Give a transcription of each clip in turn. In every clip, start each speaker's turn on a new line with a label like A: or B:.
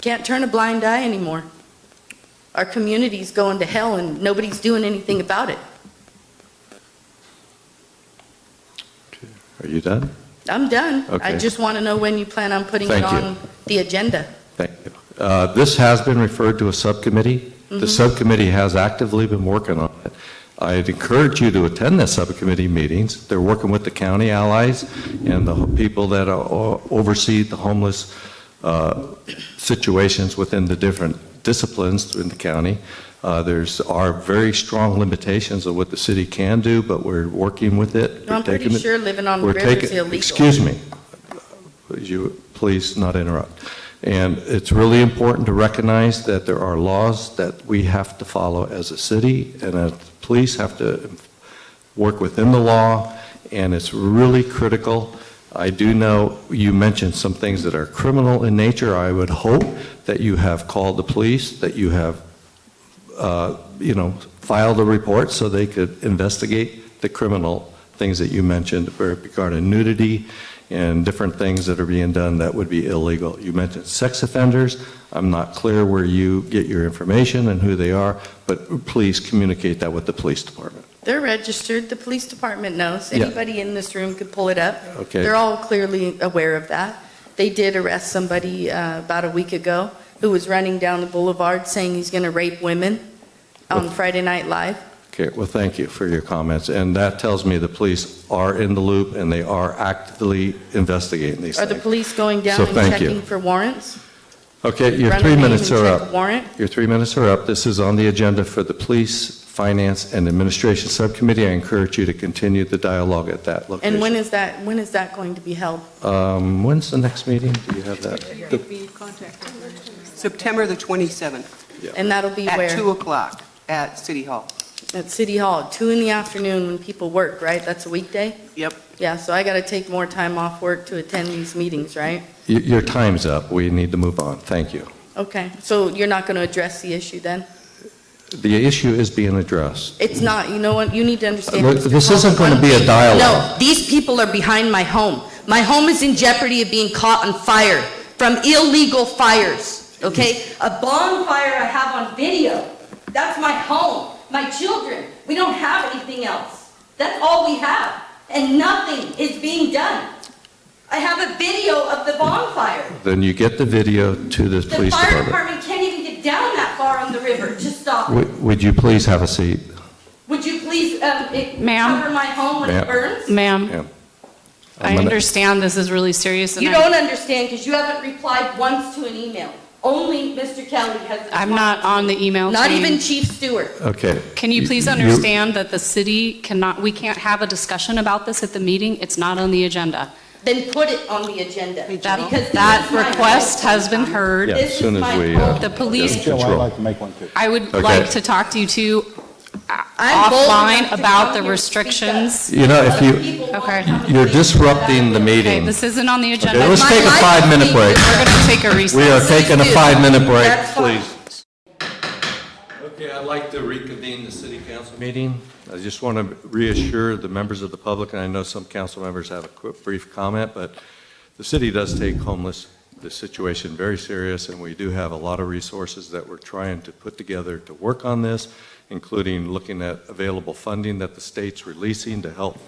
A: Can't turn a blind eye anymore. Our community's going to hell and nobody's doing anything about it.
B: Are you done?
A: I'm done. I
B: Okay.
A: just want to know when you plan on putting it
B: Thank you.
A: on the agenda.
B: Thank you. Uh, This has been referred to a subcommittee. The subcommittee has actively been working on it. I'd encourage you to attend the subcommittee meetings. They're working with the county allies and the people that are- oversee the homeless uh, situations within the different disciplines in the county. Uh, There's, are very strong limitations of what the city can do, but we're working with it.
A: I'm
B: We're taking
A: pretty
B: it-
A: sure living on the
B: we're
A: river is
B: taking-
A: illegal.
B: Excuse me. You, please not interrupt. And it's really important to recognize that there are laws that we have to follow as a city, and that the police have to work within the law, and it's really critical. I do know you mentioned some things that are criminal in nature. I would hope that you have called the police, that you have, uh, you know, filed a report so they could investigate the criminal things that you mentioned regarding nudity and different things that are being done that would be illegal. You mentioned sex offenders. I'm not clear where you get your information and who they are, but please communicate that with the police department.
A: They're registered, the police department knows.
B: Yeah.
A: Anybody in this room could pull it up.
B: Okay.
A: They're all clearly aware of that. They did arrest somebody uh, about a week ago who was running down the boulevard saying he's going to rape women on Friday Night Live.
B: Okay, well, thank you for your comments. And that tells me the police are in the loop and they are actively investigating these
A: Are the
B: things.
A: police going down
B: So
A: and
B: thank you.
A: checking for warrants?
B: Okay, your
A: Run a
B: three
A: name
B: minutes
A: and
B: are
A: check
B: up.
A: a Warrant?
B: Your three minutes are up. This is on the agenda for the Police, Finance, and Administration Subcommittee. I encourage you to continue the dialogue at that location.
A: And when is that, when is that going to be held?
B: Um, When's the next meeting? Do you have that?
C: September the 27th,
A: And that'll be
C: at
A: where?
C: 2 o'clock, at City Hall.
A: At City Hall, two in the afternoon when people work, right? That's a weekday?
C: Yep.
A: Yeah, so I got to take more time off work to attend these meetings, right?
B: Y- Your time's up. We need to move on. Thank you.
A: Okay, so you're not going to address the issue then?
B: The issue is being addressed.
A: It's not, you know what, you need to understand.
B: Look,
A: Mr.
B: this isn't
A: Coleman,
B: gonna be a
A: one- No,
B: dialogue.
A: these people are behind my home. My home is in jeopardy of being caught on fire from illegal fires, okay? A bonfire I have on video. That's my home, my children. We don't have anything else. That's all we have, and nothing is being done. I have a video of the bonfire.
B: Then you get the video to the
A: The
B: police
A: fire
B: department.
A: department can't even get down that far on the river to stop it.
B: Would- Would you please have a seat?
A: Would you please, um, it-
D: Ma'am?
A: cover my home when
B: Ma'am.
A: it burns?
D: Ma'am,
B: Yeah.
D: I
B: I'm gonna-
D: understand this is really serious, and
A: You
D: I-
A: don't understand because you haven't replied once to an email. Only Mr. Kelly has.
D: I'm not on the email
A: Not even
D: chain.
A: Chief Stewart.
B: Okay.
D: Can you please understand that the city cannot, we can't have a discussion about this at the meeting? It's not on the agenda.
A: Then put it on the agenda.
D: That,
A: because
D: that
A: this is my
D: request
A: home.
D: has been heard.
B: Yeah,
A: This
B: as
A: is
B: soon
A: my
B: as we.
A: fault.
B: uh,
D: The police-
B: get
E: Joe, I'd
B: control.
E: like to make one too.
D: I would
B: Okay.
D: like to talk to you two uh,
A: I'm bold
D: offline
A: enough to
D: about
A: come
D: the
A: here and speak up.
D: restrictions.
B: You know, if
A: Other
B: you,
A: people won't
D: Okay.
A: come and
B: you're
A: say-
B: disrupting the
D: Okay,
B: meeting.
D: this isn't on the agenda.
B: Okay, let's
A: My
D: We're
B: take a
A: life
B: five-minute
A: is
B: break.
D: going to take a recess.
B: We are taking a five-minute break,
A: That's fine.
B: please. Okay, I'd like to reconvene the city council meeting. I just want to reassure the members of the public, and I know some council members have a quick, brief comment, but the city does take homeless, the situation very serious, and we do have a lot of resources that we're trying to put together to work on this, including looking at available funding that the state's releasing to help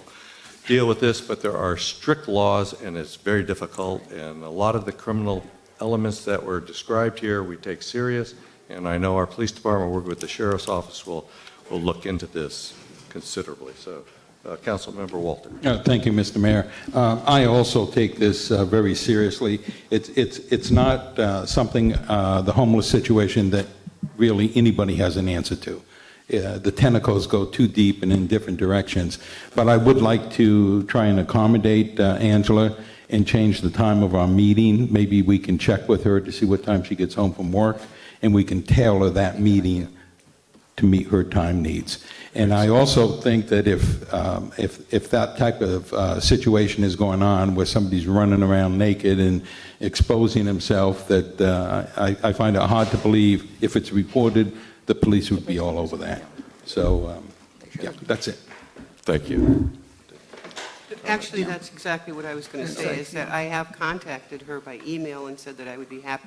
B: deal with this, but there are strict laws, and it's very difficult, and a lot of the criminal elements that were described here, we take serious, and I know our police department, working with the sheriff's office, will, will look into this considerably. So, uh, Councilmember Walter.
E: Uh, Thank you, Mr. Mayor. Uh, I also take this uh, very seriously. It's it's it's not uh, something, uh, the homeless situation, that really anybody has an answer to. Uh, The tentacles go too deep and in different directions. But I would like to try and accommodate uh, Angela and change the time of our meeting. Maybe we can check with her to see what time she gets home from work, and we can tailor that meeting to meet her time needs. And I also think that if, um, if, if that type of uh, situation is going on where somebody's running around naked and exposing himself, that uh, I, I find it hard to believe if it's reported, the police would be all over that. So, um, yeah, that's it.
B: Thank you.
C: Actually, that's exactly what I was going to say, is that I have contacted her by email and said that I would be happy